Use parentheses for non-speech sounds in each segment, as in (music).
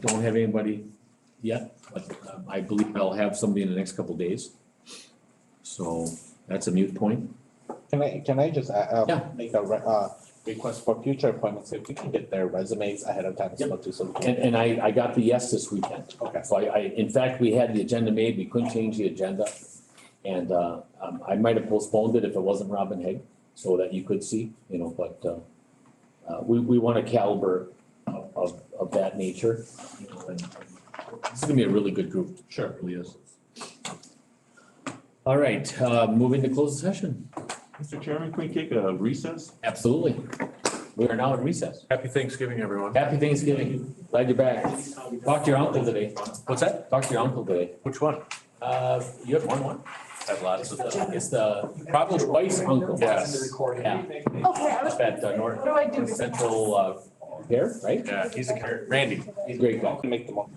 Don't have anybody yet, but um, I believe I'll have somebody in the next couple days. So that's a mute point. Can I, can I just, uh, uh, Yeah. make a, re- uh, request for future appointments, if we can get their resumes ahead of time, so we'll do some. And, and I, I got the yes this weekend. Okay. So I, I, in fact, we had the agenda made, we couldn't change the agenda. And, uh, um, I might have postponed it if it wasn't Robin Haig, so that you could see, you know, but, uh, uh, we, we want a caliber of, of, of that nature, you know, and it's gonna be a really good group. Sure. It really is. All right, uh, moving to closed session. Mr. Chairman, can we take a recess? Absolutely. We are now in recess. Happy Thanksgiving, everyone. Happy Thanksgiving. Glad you're back. Talk to your uncle today. What's that? Talk to your uncle today. Which one? Uh, you have one one. I have lots of them. It's the probably twice uncle. Yes. Yeah, Okay, I was, up at uh, what do I do? North Central, uh, here, right? Yeah, he's a, character. Randy. He's a great guy. Make them all.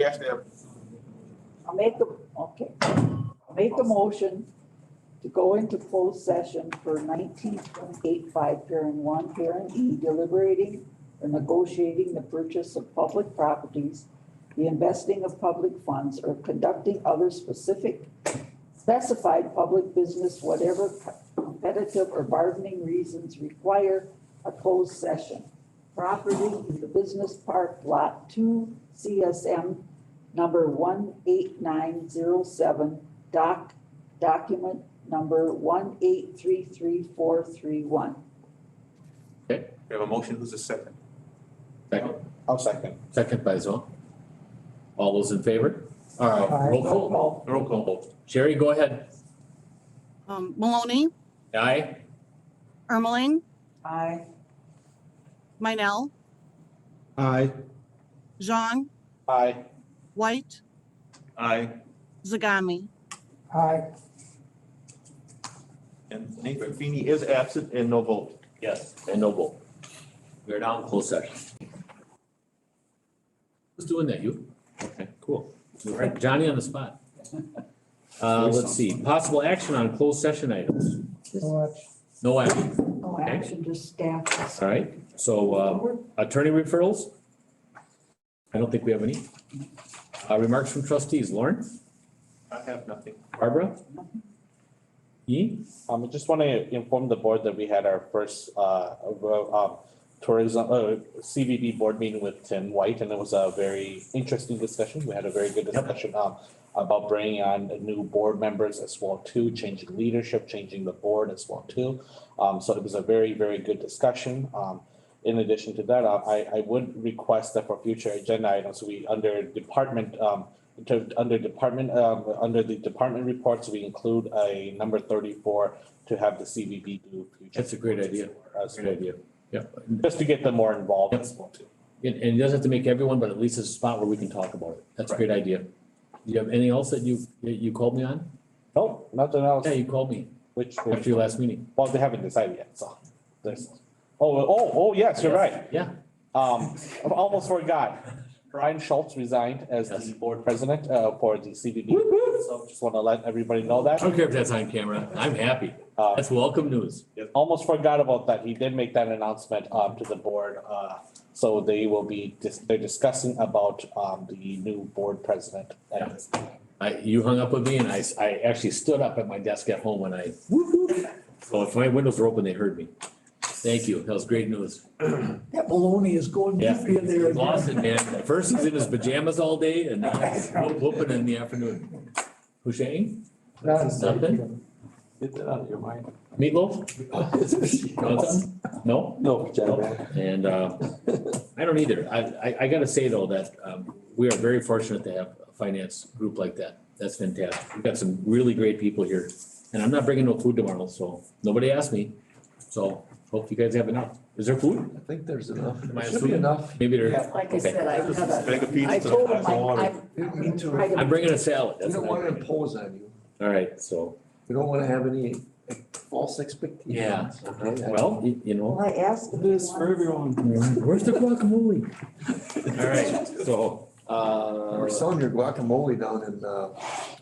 I'll make the, okay, I'll make the motion to go into closed session for nineteen twenty-eight, five, parent one, parent E, deliberating or negotiating the purchase of public properties, the investing of public funds, or conducting other specific specified public business, whatever competitive or bargaining reasons require a closed session. Property in the business park, lot two, CSM number one eight nine zero seven, doc, document number one eight three three four three one. We have a motion, who's a second? Second, I'll second. second by Zong. All those in favor? All right, roll call. Roll call. Sherry, go ahead. Um, Maloney, Aye? Ermeling, Aye. Meinel, Aye. Zhang, Aye. White, Aye. Zagami. And Nathan Feeney is absent and no vote. Yes. And no vote. We're now in closed session. Who's doing that, you? Okay, cool. All right, Johnny on the (laughs) spot. Uh, let's see, possible action on closed session items. No action, No oh, action, just staff. all right? So, uh, attorney referrals? I don't think we have any. Uh, remarks from trustees, Lauren, I have nothing. Barbara? E? Um, I just want to inform the board that we had our first, uh, ro- um, tourism, uh, CVB board meeting with Tim White, and it was a very interesting discussion. We had a very good discussion, um, about bringing on new board members as well too, changing leadership, changing the board as well too. Um, so it was a very, very good discussion. Um, in addition to that, uh, I, I would request that for future agenda items, we, under department, um, to, under department, um, under the department reports, we include a number thirty-four to have the CVB do. future That's a great idea. reports as well, Great idea. Yep, Just to get them more involved as well too. And, and it doesn't have to make everyone, but at least it's a spot where we can talk about it. That's a great idea. Do you have anything else that you, that you called me on? Nope, nothing else, Yeah, you called me which, after your last meeting. well, they haven't decided yet, so. there's- Oh, oh, oh, yes, you're right. Yeah. Um, I almost forgot. Brian Schultz resigned as Yes. the board president, uh, for the CVB. So just want to let everybody know I that. don't care if that's on camera. I'm happy. Um, That's welcome news. Almost forgot about that. He did make that announcement um to the board. Uh so they will be dis- they're discussing about um the new board president. at this time. I, you hung up with me and I, s- I actually stood up at my desk at home and I, whoop, whoop. So if my windows were open, they heard me. Thank you. That was great (clears throat) news. That baloney is going Yeah. deep in there. Lost it, man. At First he's in his pajamas all day and now he's (laughs) whoop- whooping in the afternoon. Hushain? Nothing? Get that out of (laughs) your mind. Meatloaf? You want something? No? No, Jennifer. And uh, I don't either. I, I, I gotta say though, that um, we are very fortunate to have a finance group like that. That's fantastic. We've got some really great people here. And I'm not bringing no food tomorrow, so nobody asked me. So hope you guys have enough. Is there food? I think there's enough. Am I There should be assuming? enough. Maybe there, Like I said, I have a, Bag of I pizza, told him glass of water. I, Me too. I. I'm bringing a salad. We That's don't what want I'm to bringing. impose on you. All right, so, We don't want to have any false expectations. Yeah. okay? well, you you know. I asked him. This for everyone. Where's the guacamole? All right, so, We're uh, selling your guacamole down in uh,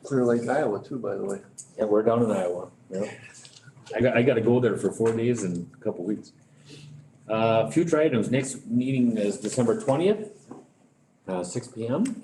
Clear Lake, Iowa too, by the way. yeah, we're down in Iowa. Yeah. I got, I gotta go there for four days and a couple weeks. Uh, future items, next meeting is December twentieth. uh, six P M.